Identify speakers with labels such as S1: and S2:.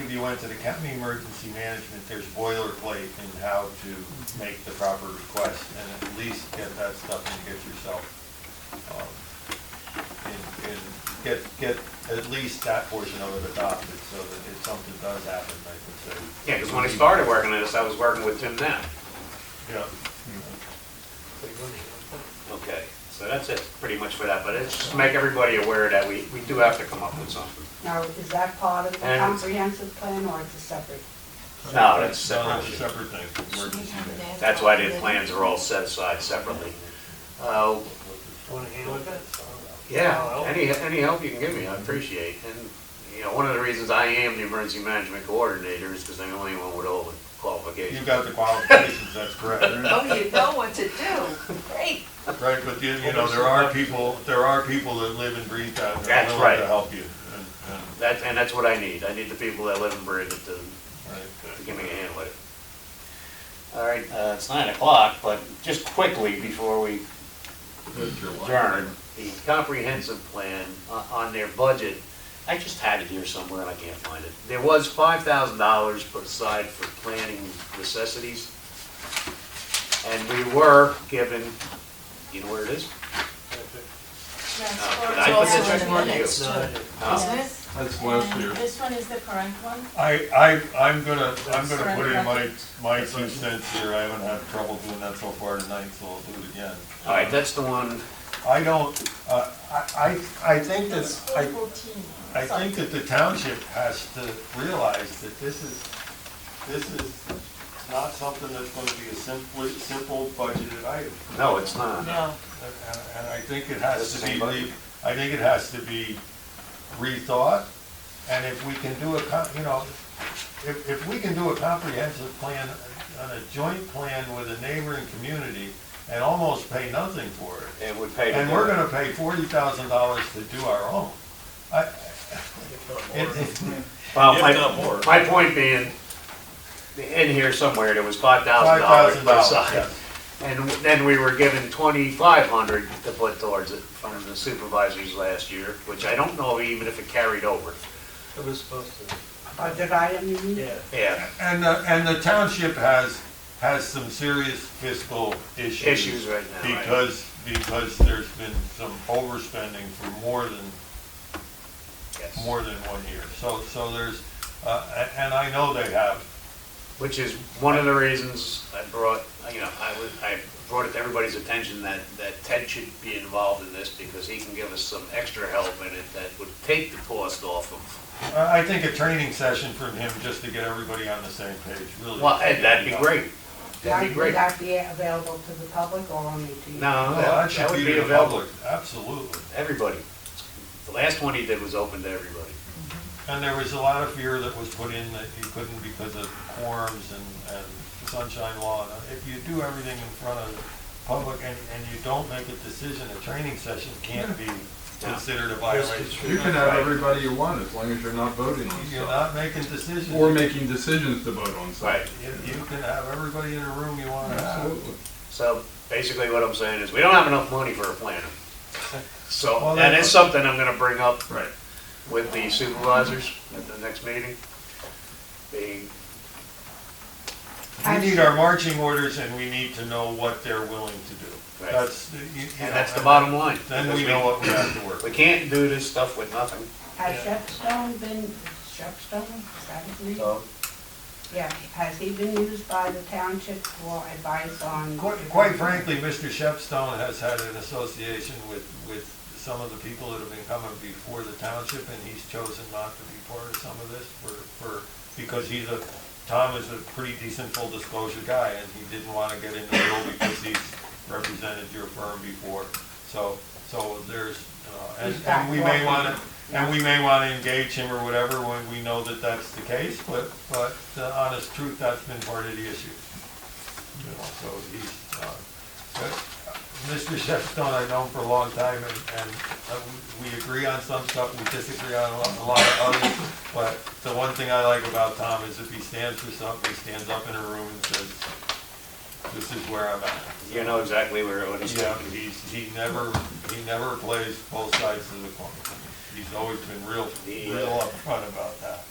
S1: if you went to the county emergency management, there's boilerplate in how to make the proper request and at least get that stuff and get yourself, um, and, and get, get at least that portion of it adopted so that if something does happen, they can say.
S2: Yeah, because when I started working on this, I was working with Tim then.
S1: Yeah.
S2: Okay. So that's it, pretty much for that, but it's just to make everybody aware that we, we do have to come up with something.
S3: Now, is that part of the
S2: And-
S3: comprehensive plan or it's a separate?
S2: No, that's
S1: No,
S2: separate.
S1: that's a separate thing, emergency management.
S2: That's why the plans are all set aside separately. Uh,
S4: Want to handle it?
S2: Yeah, any, any help you can give me, I appreciate. And, you know, one of the reasons I am the emergency management coordinator is because I'm the only one with all the
S1: You
S2: qualifications.
S1: got the qualifications, that's correct.
S5: Oh, you know what to do. Great.
S1: Right, but you, you know, there are people, there are people that live and breathe that, and are
S2: That's
S1: willing to
S2: right.
S1: help you. and- and,
S2: That, and that's what I need. I need the people that live and breathe it to
S1: right.
S2: Give me a hand with it. All right, uh, it's nine o'clock, but just quickly before we adjourn, the comprehensive plan o- on their budget, I just had it here somewhere and I can't find it. There was five thousand dollars put aside for planning necessities. And we were given, you know where it is?
S6: Yes,
S2: No,
S6: or
S2: but
S6: it's
S2: I put
S6: also
S2: the
S6: in
S2: check mark
S6: the
S2: you.
S6: minutes, too.
S2: Uh,
S6: Yes.
S1: That's
S6: And This one is the current one.
S1: I, I, I'm gonna, I'm gonna put in my, my two cents here, I haven't had trouble doing that so far tonight, so I'll do it again.
S2: All right, that's the one,
S1: I don't, uh, I, I, I think that's, I,
S6: Fourteen.
S1: I think that the township has to realize that this is, this is not something that's gonna be a simple, simple budgeted item.
S2: no, it's not.
S6: No.
S1: And and I think it has to
S2: That's the
S1: be,
S2: same budget.
S1: re- I think it has to be rethought, and if we can do a, co- you know, if, if we can do a comprehensive plan, on a joint plan with a neighboring community, and almost pay nothing for it,
S2: It would pay. to
S1: and
S2: do
S1: we're
S2: it.
S1: gonna pay forty thousand dollars to do our own, I, it- it-
S2: Well,
S7: If
S2: my,
S7: not more.
S2: my point being, in here somewhere, there was five
S1: five
S2: thousand dollars
S1: thousand
S2: put
S1: dollars,
S2: aside. And then we were given twenty-five hundred to put towards it from the supervisors last year, which I don't know even if it carried over.
S4: It was supposed to,
S3: Or Uh, did I, I mean?
S4: yeah.
S2: Yeah,
S1: And, the- and the township has, has some serious fiscal issues.
S2: issues right now. right?
S1: Because, because there's been some overspending for more than,
S2: Yes.
S1: more than one year. So, so there's, uh, a- and I know they have,
S2: Which is one of the reasons I brought, you know, I was, I brought it to everybody's attention that, that Ted should be involved in this because he can give us some extra help in it that would take the cost off of
S1: I I think a training session from him just to get everybody on the same page, really.
S2: Well, hey, that'd be great. That'd
S3: That-
S2: be great.
S3: Would that be available to the public or only to you?
S2: No,
S1: No,
S2: that
S1: Oh, that
S2: that
S1: should
S2: would
S1: be
S2: be
S1: to the
S2: available,
S1: public, absolutely.
S2: to everybody. The last one he did was open to everybody.
S1: And there was a lot of fear that was put in that you couldn't because of quorums and, and sunshine law. And If you do everything in front of the public and, and you don't make a decision, a training session can't be considered a violation.
S8: You can have everybody you want as long as you're not voting on
S1: You're
S8: stuff.
S1: not making decisions.
S8: Or making decisions to vote on stuff.
S1: You, you can have everybody in the room you want to have.
S8: Absolutely.
S2: So basically what I'm saying is, we don't have enough money for a planner. So,
S1: Well,
S2: and
S1: that-
S2: it's something I'm gonna bring up
S8: Right.
S2: with the supervisors at the next meeting. Being,
S1: We need our marching orders and we need to know what they're willing to do.
S2: Right.
S1: That's, you- you
S2: and
S1: know,
S2: that's the bottom line.
S1: Then we
S2: because
S1: know what we have to work.
S2: We
S1: with.
S2: can't do this stuff with nothing,
S3: Has Shepstone been, Shepstone, is that his name?
S1: Uh,
S2: so.
S3: Yeah, has he been used by the township for advice on?
S1: Quite quite frankly, Mr. Shepstone has had an association with, with some of the people that have been coming before the township, and he's chosen not to be part of some of this for, for, because he's a, Tom is a pretty decent full disclosure guy, and he didn't want to get into the role because he's represented your firm before. So, so there's, uh, and,
S3: He's back
S1: and we may
S3: walking.
S1: want to, and we may want to engage him or whatever when we know that that's the case, but, but the honest truth, that's been part of the issue. You know, so he's, uh, but, uh, Mr. Shepstone, I've known for a long time, and, and uh, we we agree on some stuff, we disagree on a lot, a lot of others, but the one thing I like about Tom is if he stands for something, he stands up in a room and says, this is where I'm at.
S2: You know exactly where, what he's
S1: Yeah,
S2: talking about.
S1: he's, he never, he never plays both sides of the coin. He's always been real,
S2: The,
S1: real
S2: uh,
S1: upfront about that.